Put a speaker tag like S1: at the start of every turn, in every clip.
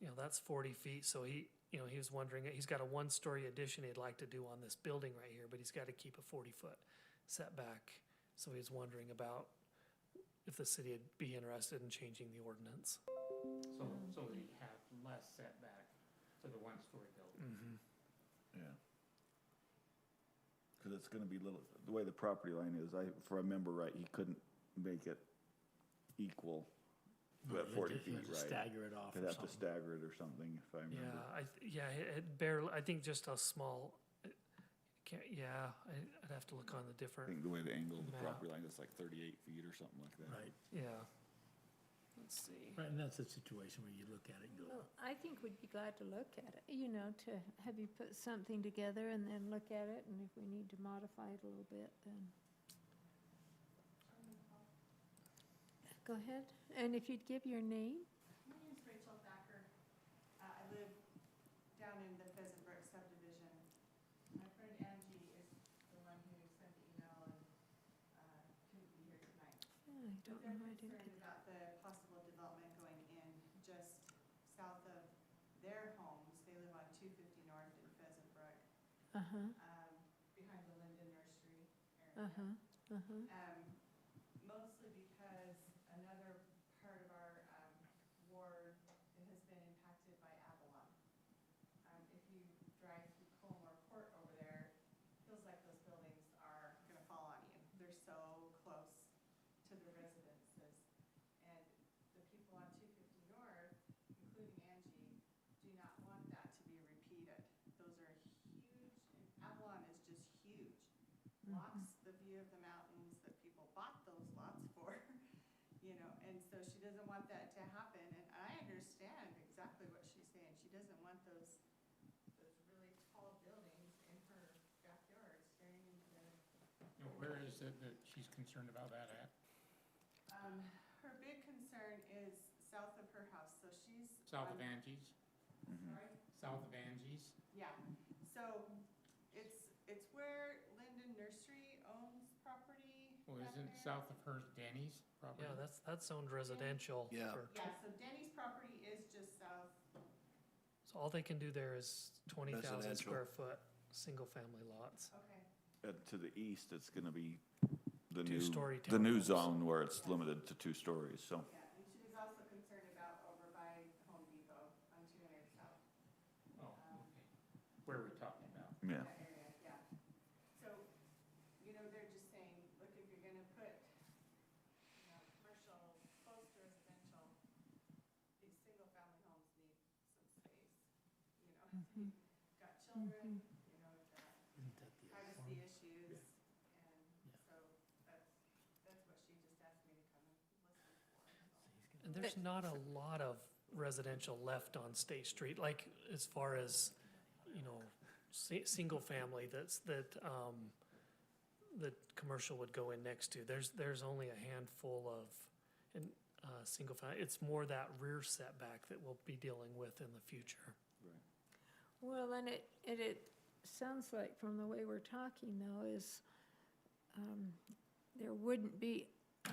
S1: you know, that's forty feet, so he, you know, he was wondering, he's got a one-story addition he'd like to do on this building right here, but he's gotta keep a forty-foot setback. So he was wondering about if the city would be interested in changing the ordinance.
S2: So,
S3: Mm.
S2: so that you have less setback to the one-story building.
S4: Mm.
S5: Yeah. Cause it's gonna be little, the way the property line is, I, if I remember right, he couldn't make it equal to that
S6: You'd
S5: forty
S6: just- you'd
S5: feet,
S6: just
S5: right?
S6: Stagger it off
S5: They'd
S6: or
S5: have to
S6: something.
S5: stagger it or something, if I
S1: Yeah,
S5: remember.
S1: I, th- yeah, it it barely, I think just a small, it can't, yeah, I, I'd have to look on the
S5: I
S1: different,
S5: think the way the angle of the
S1: Map.
S5: property line is like thirty-eight feet or something like that.
S6: Right,
S1: yeah. Let's see.
S6: right, and that's a situation where you look at it and go,
S4: Well, I think we'd be glad to look at it, you know, to have you put something together and then look at it, and if we need to modify it a little bit, then. Go ahead, and if you'd give your name,
S3: My name's Rachel Thacker. Uh, I live down in the Pheasant Brook subdivision. My friend Angie is the one who sent the email and uh, couldn't be here tonight.
S4: Oh, I don't
S3: But
S4: know,
S3: they're
S4: I didn't
S3: concerned
S4: get that.
S3: about the possible development going in just south of their homes. They live on two fifty north in Pheasant Brook,
S4: Uh-huh,
S3: um, behind the Linden Nursery area.
S4: uh-huh, uh-huh,
S3: Um, mostly because another part of our, um, ward has been impacted by Avalon. Um, if you drive through Colmore Court over there, feels like those buildings are gonna fall on you. They're so close to the residences. And the people on two fifty north, including Angie, do not want that to be repeated. Those are huge, and Avalon is just huge blocks the view of the mountains that people bought those lots for, you know, and so she doesn't want that to happen, and I understand exactly what she's saying, she doesn't want those, those really tall buildings in her backyard staring into the,
S2: You know, where is it that she's concerned about that at?
S3: um, her big concern is south of her house, so she's.
S2: South of
S3: on-
S2: Angie's,
S5: Mhm.
S3: Sorry?
S2: south of Angie's?
S3: Yeah, so it's, it's where Linden Nursery owns property.
S2: Well,
S3: back
S2: isn't
S3: there.
S2: south of hers Danny's
S1: Yeah,
S2: property?
S1: that's, that's zoned residential.
S6: Yeah.
S1: for tw-
S3: Yeah, so Denny's property is just south
S1: So all they can do there is twenty thousand
S6: Residential.
S1: square foot, single-family lots.
S3: Okay,
S5: Uh, to the east, it's gonna be the new,
S1: Two-story
S5: the new
S1: townhomes.
S5: zone where it's limited to two stories, so.
S3: yeah, and she was also concerned about over by Home Depot on two hundred south,
S2: Oh, okay. Where are we talking about?
S5: Yeah,
S3: that area, yeah. So, you know, they're just saying, look, if you're gonna put, you know, commercial, close to residential, these single-family homes need some space, you know, if you've got children, you know, you've got
S6: isn't that the other
S3: privacy
S6: farm?
S3: issues, and
S6: Yeah.
S3: so that's, that's what she just asked me to come and listen for, so.
S1: And there's not a lot of residential left on State Street, like as far as, you know, si- single family that's, that, um, that commercial would go in next to. There's, there's only a handful of, and, uh, single family, it's more that rear setback that we'll be dealing with in the future.
S4: well, and it, and it sounds like from the way we're talking though is, um, there wouldn't be a-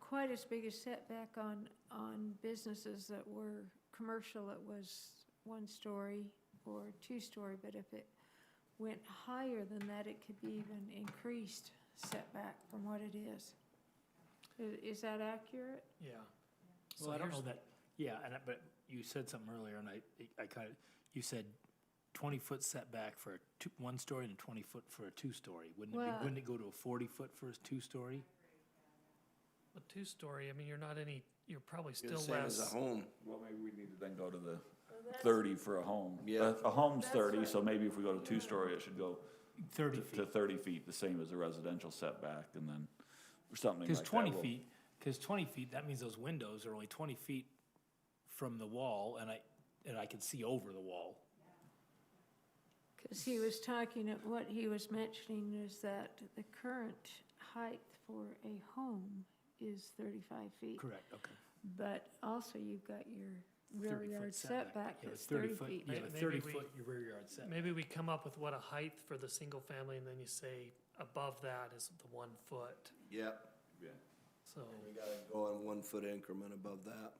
S4: quite as big a setback on, on businesses that were commercial that was one story or two story, but if it went higher than that, it could be even increased setback from what it is. I- Is that accurate?
S1: Yeah.
S6: Well, I don't know
S1: So
S6: that, yeah, and, I- but you said something earlier and I, I kind of, you said twenty-foot setback for a two, one story and twenty-foot for a two-story. Wouldn't it be,
S4: Well-
S6: wouldn't it go to a forty-foot for a two-story?
S1: here's A two-story, I mean, you're not any, you're probably
S7: You're the
S1: still
S7: same as a
S1: less.
S7: home.
S5: Well, maybe we need to then go to the thirty for a home.
S7: Yeah.
S5: A a home's
S4: That's
S5: thirty,
S4: right.
S5: so maybe if we go to two-story, it should go
S6: Thirty
S5: to- to
S6: feet.
S5: thirty feet, the same as a residential setback, and then something like that.
S6: Cause twenty
S5: will-
S6: feet, cause twenty feet, that means those windows are only twenty feet from the wall and I, and I can see over the wall.
S4: Because he was talking, of- what he was mentioning is that the current height for a home is 35 feet.
S6: Correct, okay.
S4: But also you've got your rear
S6: 30-foot
S4: yard setback
S6: Yeah,
S4: that's
S6: 30
S4: 30
S6: foot-
S4: feet.
S6: Yeah,
S1: May- maybe
S6: thirty
S1: we-
S6: foot your rear yard setback.
S1: Maybe we come up with what a height for the single family and then you say above that is the one foot,
S7: Yep.
S5: Yeah.
S1: so.
S7: We gotta go on one foot increment above that.